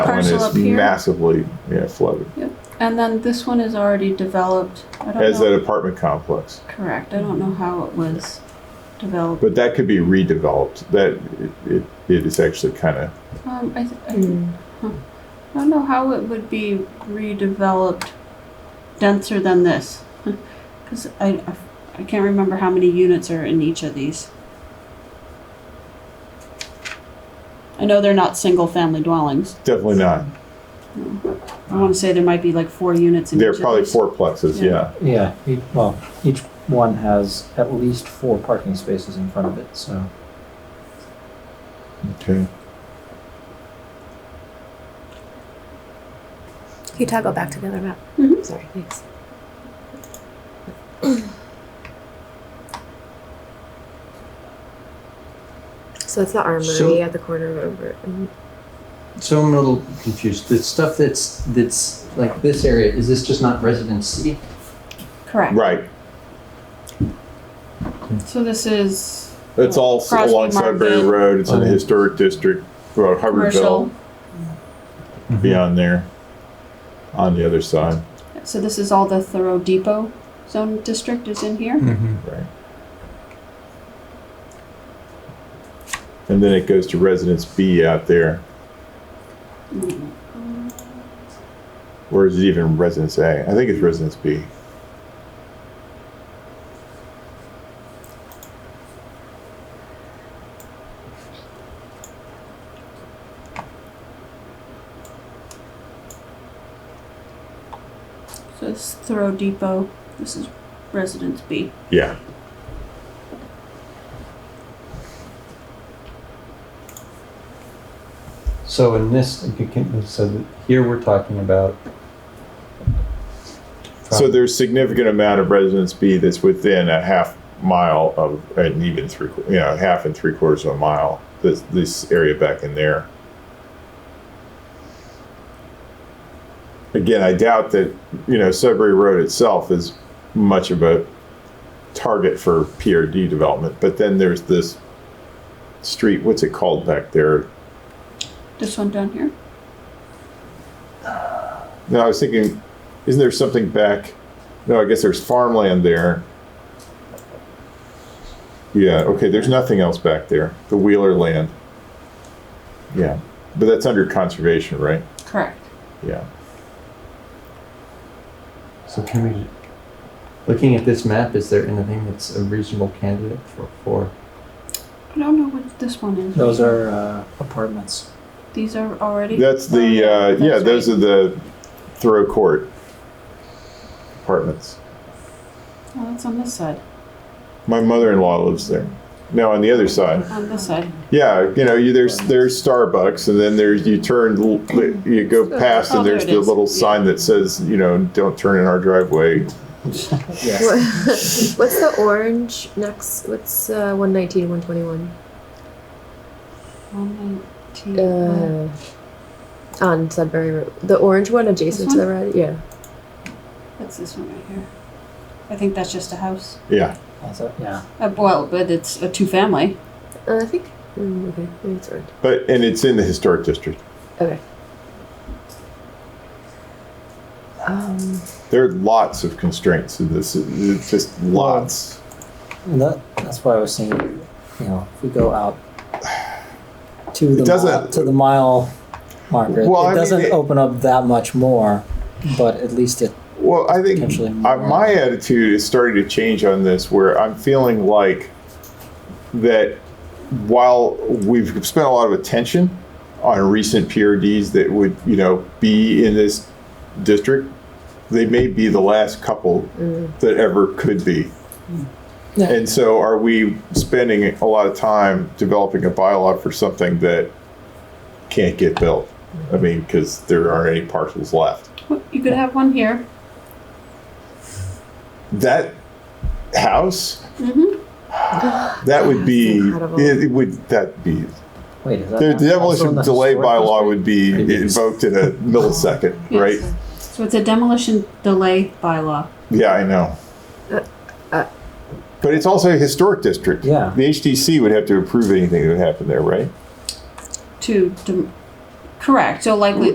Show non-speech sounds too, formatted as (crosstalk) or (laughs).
That one Parcel is up here. massively, yeah, flooded. And then this one is already developed. I don't As know. that apartment complex. Correct. I don't know how it was developed. But that could be redeveloped. That, it, it, it is actually kind of, Um, I, th- I I don't know how it would be redeveloped denser than this. (laughs) Because I, I, I can't remember how many units are in each of these. I know they're not single family dwellings. definitely not. I want to say there might be like four units in There are each of probably these. four plexes, yeah. Yeah. Yeah, e- well, each one has at least four parking spaces in front of it, so. Okay. Can you toggle back to the other map? Mhm. Sorry, thanks. So it's the armory So- at the corner of over. So I'm a little confused. The stuff that's that's like this area is this just not residency? Correct. Right. So this is It's all Crosby along Sudbury Market. Road. It's in the Oh. historic district, uh, commercial. Hubbardville, beyond there, on the other side. So this is all the Thoreau Depot zone district is in here. Mm-hmm. Right. And then it goes to Residence B out there, or is it even Residence A? I think it's Residence B. So it's Thoreau Depot. This is Residence B. Yeah. So in this, you can- so that here we're talking about. So there's significant amount of Residence B that's within a half mile of, and even three, qu- you know, half and three quarters of a mile, this, this area back in there. Again, I doubt that, you know, Sudbury Road itself is much of a target for PRD development, but then there's this street, what's it called back there? This one down here. No, I was thinking, isn't there something back? No, I guess there's farmland there. Yeah, okay, there's nothing else back there. The Wheeler land. Yeah, but that's under conservation, right? Correct. Yeah. So can we? Looking at this map, is there anything that's a reasonable candidate for for? I don't know what this one is. Those are uh, apartments. These are already. That's the, uh, yeah, Oh, That's those right. are the Thoreau Court apartments. Oh, that's on this side. My mother in law lives there. No, on the other side. On this side. Yeah, you know, you, there's there's Starbucks, and then there's you turn, l- you go past, Oh, and there there's it the is. little Yeah. sign that says, you know, don't turn in our driveway. Yeah. (laughs) What's the orange next? What's uh, 119, 121? One nineteen. Uh, on Sudbury Road. The orange one adjacent This to the red? Yeah. What's this one right here? I think that's just a house. Yeah, That's it, yeah. Uh, well, but it's a two family. Uh, I think. Mm, okay, maybe it's orange. but and it's in the historic district. Okay. Um, There are lots of constraints in this. It's just lots. And that, that's why I was saying, you know, if we go out to the, mile, doesn't- to the mile marker, Well, I it mean, doesn't it- open up that much more, but at least it, Well, I think Potentially I, more. my attitude is starting to change on this, where I'm feeling like that while we've spent a lot of attention on recent PRDs that would, you know, be in this district, they may be the last couple that ever could be. Yeah. And so, are we spending a lot of time developing a bylaw for something that can't get built? I mean, because there aren't any parcels left. Well, You could have one here. that house Mhm. that would be That's incredible. it, it would that be wait, is that the not also in demolition the delay historic bylaw would be Maybe it's- invoked in a millisecond Yes. right So it's a demolition delay bylaw. yeah i know uh. but it's also a historic district Yeah. the htc would have to approve anything that would happen there right To, dem correct. So likely